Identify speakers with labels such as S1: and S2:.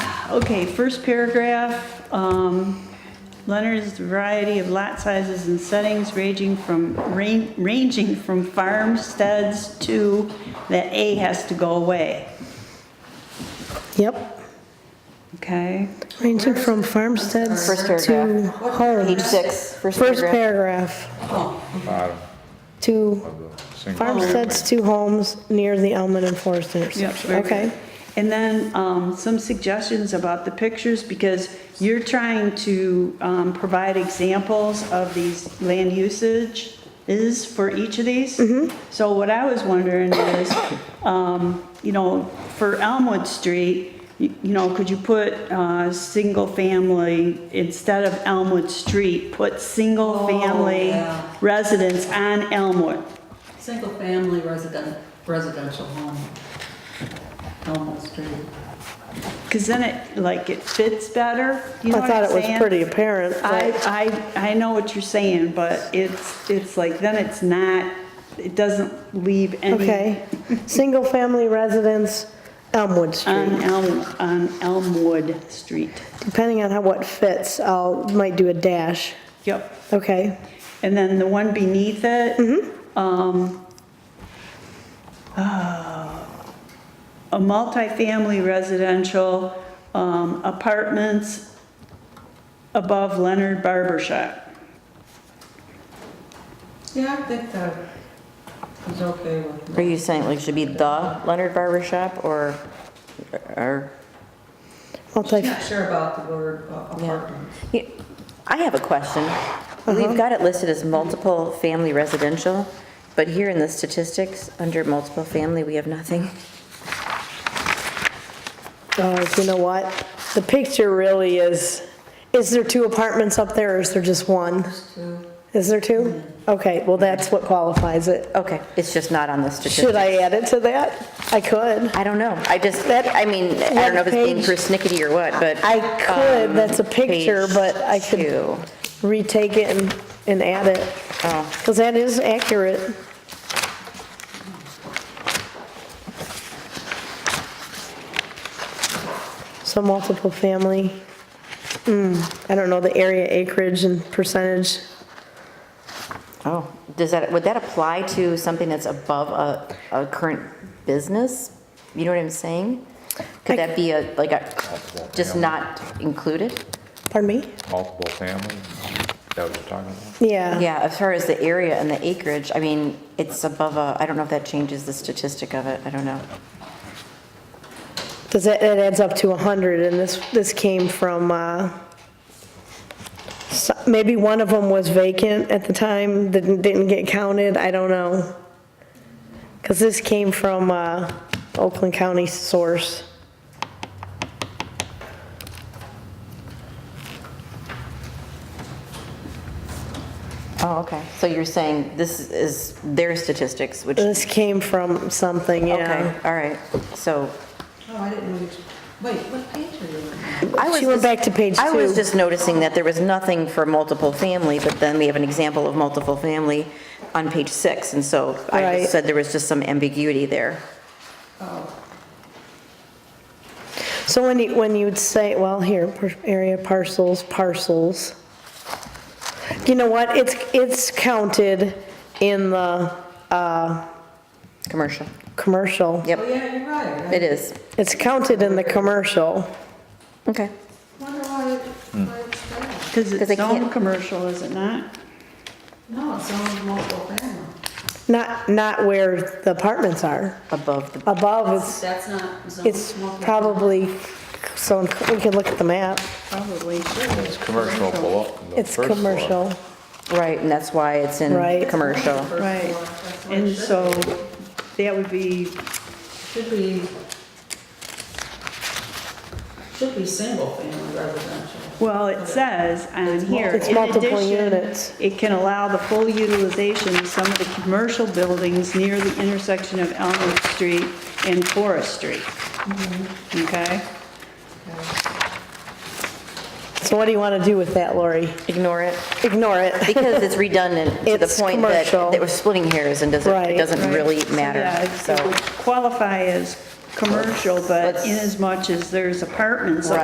S1: Okay, first paragraph, um, Leonard's variety of lot sizes and settings ranging from, ran- ranging from farmsteads to, that A has to go away,
S2: Yep,
S1: okay?
S2: ranging from farmsteads
S3: First
S2: to
S3: paragraph. Page
S2: homes.
S3: six, first
S2: First
S3: paragraph.
S2: paragraph,
S4: bottom
S2: to
S4: of the single.
S2: farmsteads to homes near the Elman and Forest
S1: Yep,
S2: intersection.
S1: very
S2: Okay,
S1: good. And then um, some suggestions about the pictures, because you're trying to um, provide examples of these land usage is for each of these.
S2: Mm-hmm.
S1: So what I was wondering is, um, you know, for Elmwood Street, you you know, could you put uh, single-family, instead of Elmwood Street, put
S2: Oh,
S1: single-family
S5: yeah.
S1: residence on Elmwood?
S5: Single-family resident, residential home, Elmwood Street.
S1: Because then it, like, it fits better, you know
S2: I
S1: what I'm
S2: thought it was
S1: saying?
S2: pretty apparent, but
S1: I, I, I know what you're saying, but it's, it's like, then it's not, it doesn't leave any.
S2: Okay. Single-family residence,
S1: Um,
S2: Elmwood Street.
S1: On Elm, on Elmwood Street.
S2: Depending on how what fits, I'll, might do a dash.
S1: Yep.
S2: Okay,
S1: And then the one beneath it. um, uh, A multifamily residential um, apartments above Leonard Barber Shop.
S5: Yeah, I think that is okay with me.
S3: Are you saying like should be the Leonard Barber Shop or, or?
S2: multi,
S5: Not sure about the word uh, apartment.
S3: Yeah. I have a question.
S2: Uh-huh.
S3: We've got it listed as multiple family residential, but here in the statistics, under multiple family, we have nothing.
S2: uh, you know what? The picture really is, is there two apartments up there or is there just one? Is there two? Okay, well, that's what qualifies it.
S3: Okay, it's just not on the
S2: Should
S3: statistics.
S2: I add it to that? I could.
S3: I don't know. I just, I mean, I don't know if it's being
S2: What page?
S3: persnickety or what, but.
S2: I could,
S3: um,
S2: that's a picture,
S3: page
S2: but I could-
S3: two.
S2: Retake it and, and add it.
S3: Oh.
S2: Because that is accurate. So multiple family. Hmm, I don't know the area acreage and percentage.
S3: Oh, does that, would that apply to something that's above a, a current business? You know what I'm saying? Could that be a, like a, just not included?
S2: Pardon me?
S4: Multiple family, is that what you're talking about?
S2: Yeah.
S3: Yeah, as far as the area and the acreage, I mean, it's above a, I don't know if that changes the statistic of it, I don't know.
S2: Does that, that adds up to 100 and this, this came from, uh, so- maybe one of them was vacant at the time, didn't, didn't get counted, I don't know. Because this came from, uh, Oakland County source.
S3: Oh, okay. So you're saying this is their statistics, which, okay,
S2: This came from something, Uh, yeah.
S3: all right, so.
S5: Oh, I didn't know which, wait, what page are you on?
S3: I was
S2: She went
S3: just-
S2: back to page
S3: I was
S2: two.
S3: just noticing that there was nothing for multiple family, but then we have an example of multiple family on page six, and so I
S2: Right.
S3: just said there was just some ambiguity there.
S2: So when you, when you'd say, well, here, par- area parcels, parcels. You know what, it's, it's counted in the
S3: Commercial.
S2: commercial.
S3: Yep.
S5: Oh, yeah, you're right. I
S3: It is.
S2: It's counted in the commercial.
S3: Okay.
S5: Wonder why, it- why it's there.
S1: Because
S3: 'Cause
S1: it's
S3: they
S1: own
S3: can't-
S1: commercial, is it not?
S5: No, it's only multiple family.
S2: Not, not where the apartments are.
S3: Above the,
S2: Above, it's,
S5: That's not zoned
S2: it's
S5: multiple-
S2: probably, so we can look at the map.
S1: Probably.
S4: It's commercial below. the
S2: It's
S4: first floor.
S2: commercial.
S3: right, and that's why it's in
S2: Right.
S3: commercial.
S1: Right,
S5: That's what it
S1: and
S5: should
S1: so
S5: be.
S1: that would be,
S5: Should be, should be single-family residential.
S1: well, it says on here.
S2: It's
S1: "In
S2: multiple
S1: addition,
S2: units."
S1: It can allow the full utilization of some of the commercial buildings near the intersection of Elmwood Street and Forest Street.
S5: Mm-hmm.
S1: Okay?
S2: So what do you want to do with that, Lori?
S3: Ignore it,
S2: Ignore it.
S3: because it's redundant to the
S2: It's
S3: point that,
S2: commercial.
S3: that we're splitting hairs and doesn't,
S2: Right.
S3: it doesn't really
S1: So, yeah,
S3: matter,
S1: it's-
S3: so.
S1: it would Qualify as commercial, but
S3: Let's-
S1: inasmuch as there's apartments up